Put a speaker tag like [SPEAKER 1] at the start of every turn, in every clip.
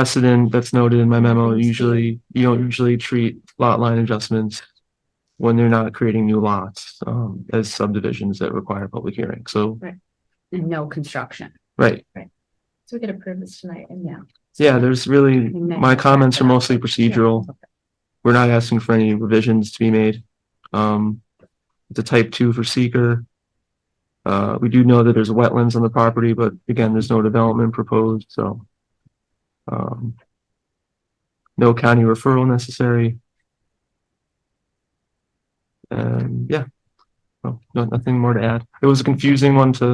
[SPEAKER 1] precedent that's noted in my memo, usually, you don't usually treat lot line adjustments when they're not creating new lots, um, as subdivisions that require public hearing, so,
[SPEAKER 2] and no construction.
[SPEAKER 1] right,
[SPEAKER 3] So we could approve this tonight and yeah.
[SPEAKER 1] yeah, there's really,
[SPEAKER 2] And then-
[SPEAKER 1] Mm, my comments are mostly procedural. We're not asking for any revisions to be made. Um, the type two for seeker. Uh, we do know that there's wetlands on the property, but again, there's no development proposed, so. Um. No county referral necessary. And yeah. Well, no, nothing more to add. It was a confusing one to.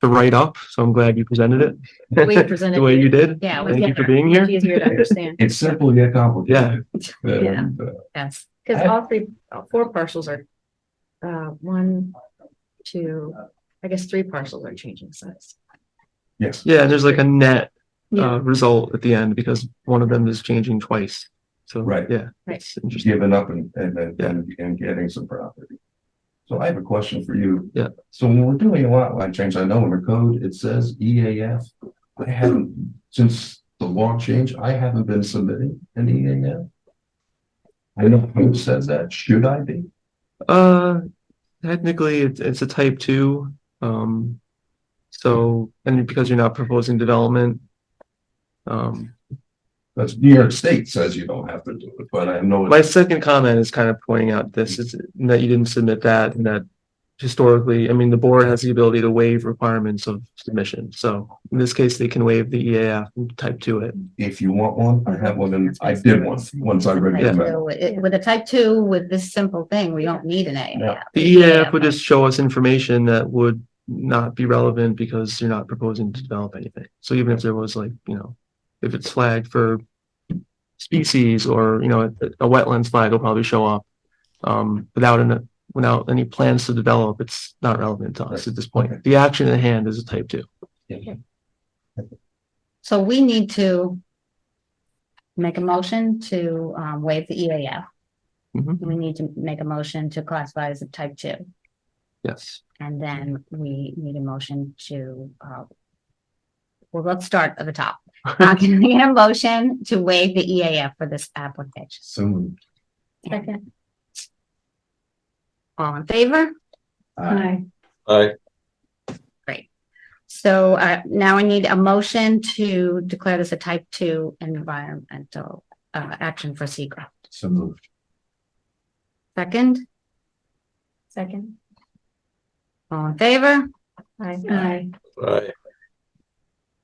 [SPEAKER 1] To write up, so I'm glad you presented it.
[SPEAKER 3] The way you presented
[SPEAKER 1] The way
[SPEAKER 3] it.
[SPEAKER 1] you did.
[SPEAKER 3] Yeah. it was
[SPEAKER 1] Thank you for
[SPEAKER 3] different.
[SPEAKER 1] being here.
[SPEAKER 3] It's Easier to understand.
[SPEAKER 4] It's simple yet complicated. Uh, Yeah.
[SPEAKER 3] Yeah.
[SPEAKER 2] Yes,
[SPEAKER 3] Cause all three, all four parcels are, uh, one, two, I guess three parcels are changing size.
[SPEAKER 4] Yes.
[SPEAKER 1] Yeah, and there's like a net
[SPEAKER 3] Yeah.
[SPEAKER 1] uh, result at the end because one of them is changing twice. So,
[SPEAKER 4] Right.
[SPEAKER 1] yeah,
[SPEAKER 3] Right.
[SPEAKER 1] it's interesting.
[SPEAKER 4] Giving up and, and, and, and getting some property. So I have a question for you.
[SPEAKER 1] Yeah.
[SPEAKER 4] So when we're doing a lot line change, I know in the code, it says EAF. I haven't, since the law changed, I haven't been submitting an EAF. I know who says that. Should I be?
[SPEAKER 1] Uh, technically, it's, it's a type two. Um, so, and because you're not proposing development, um,
[SPEAKER 4] That's New York State says you don't have to do it, but I know.
[SPEAKER 1] my second comment is kind of pointing out this is that you didn't submit that and that historically, I mean, the board has the ability to waive requirements of submission. So in this case, they can waive the EAF and type two it.
[SPEAKER 4] If you want one, I have one and I did one, once I read
[SPEAKER 2] Type
[SPEAKER 4] it. back.
[SPEAKER 2] two, it- with a type two, with this simple thing, we don't need an A.
[SPEAKER 4] Yeah.
[SPEAKER 1] The EAF would just show us information that would not be relevant because you're not proposing to develop anything. So even if there was like, you know, if it's flagged for species or, you know, a a wetlands flag will probably show up. Um, without an, without any plans to develop, it's not relevant to us at this point. The action at hand is a type two.
[SPEAKER 2] So we need to make a motion to um waive the EAF.
[SPEAKER 1] Mhm.
[SPEAKER 2] We need to make a motion to classify as a type two,
[SPEAKER 1] Yes.
[SPEAKER 2] and then we need a motion to uh. Well, let's start at the top. Uh, Can we get a motion to waive the EAF for this application?
[SPEAKER 4] Soon.
[SPEAKER 3] Second.
[SPEAKER 2] All in favor?
[SPEAKER 4] Uh,
[SPEAKER 2] So uh, now I need a motion to declare this a type two environmental uh, action for SECR.
[SPEAKER 4] So moved.
[SPEAKER 2] Second,
[SPEAKER 3] Second.
[SPEAKER 2] all in favor?
[SPEAKER 3] Aye.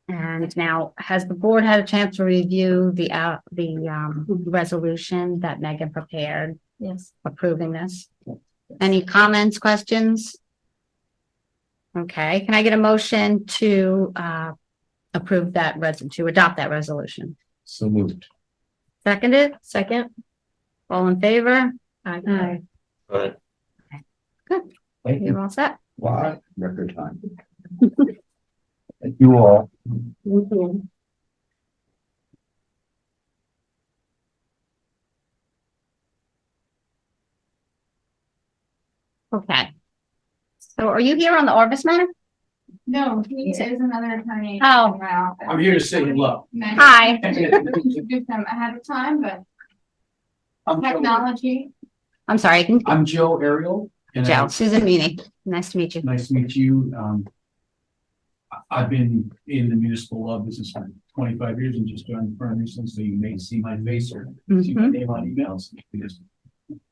[SPEAKER 2] And now, has the board had a chance to review the uh, the um, resolution that Megan prepared
[SPEAKER 3] Yes.
[SPEAKER 2] approving this? Any comments, questions? Okay, can I get a motion to uh, approve that res, to adopt that resolution?
[SPEAKER 4] So moved.
[SPEAKER 2] Seconded,
[SPEAKER 3] Second.
[SPEAKER 2] all in favor?
[SPEAKER 3] Aye.
[SPEAKER 4] Thank you.
[SPEAKER 2] You're all set?
[SPEAKER 4] Wow, record time. Thank you all.
[SPEAKER 2] Okay. So are you here on the Orbis matter?
[SPEAKER 5] No, he is another attorney.
[SPEAKER 2] Oh.
[SPEAKER 5] in my office.
[SPEAKER 6] I'm here to say hello.
[SPEAKER 5] And I
[SPEAKER 2] Hi.
[SPEAKER 5] introduced them ahead of time, but
[SPEAKER 6] I'm Joe,
[SPEAKER 5] technology,
[SPEAKER 2] I'm sorry, I can,
[SPEAKER 6] I'm Joe Ariel. and
[SPEAKER 2] Joe,
[SPEAKER 6] I'm-
[SPEAKER 2] Susan Meany. Nice to meet you.
[SPEAKER 6] Nice to meet you. Um, I- I've been in the municipal law business for twenty-five years and just joined the firm recently, so you may see my face or see my
[SPEAKER 2] Mhm.
[SPEAKER 6] name on emails. because-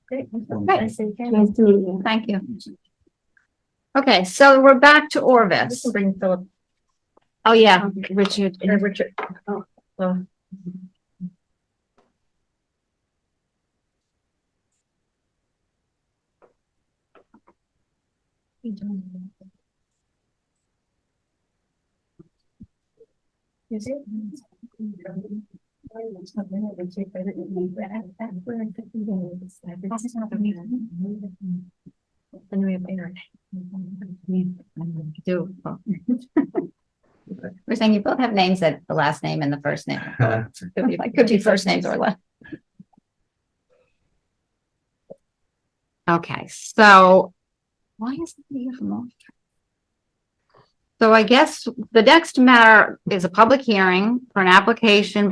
[SPEAKER 3] Great.
[SPEAKER 6] Okay.
[SPEAKER 3] Nice to meet you.
[SPEAKER 2] Thank you. Okay, so we're back to Orvis.
[SPEAKER 3] Bring Philip,
[SPEAKER 2] Oh, yeah.
[SPEAKER 3] um, Richard, uh, Richard. Oh, well. Is it? Then we have internet.
[SPEAKER 2] Do. We're saying you both have names that the last name and the first name. Could be- Could be first names or last. Okay, so why is it here from all? So I guess the next matter is a public hearing for an application by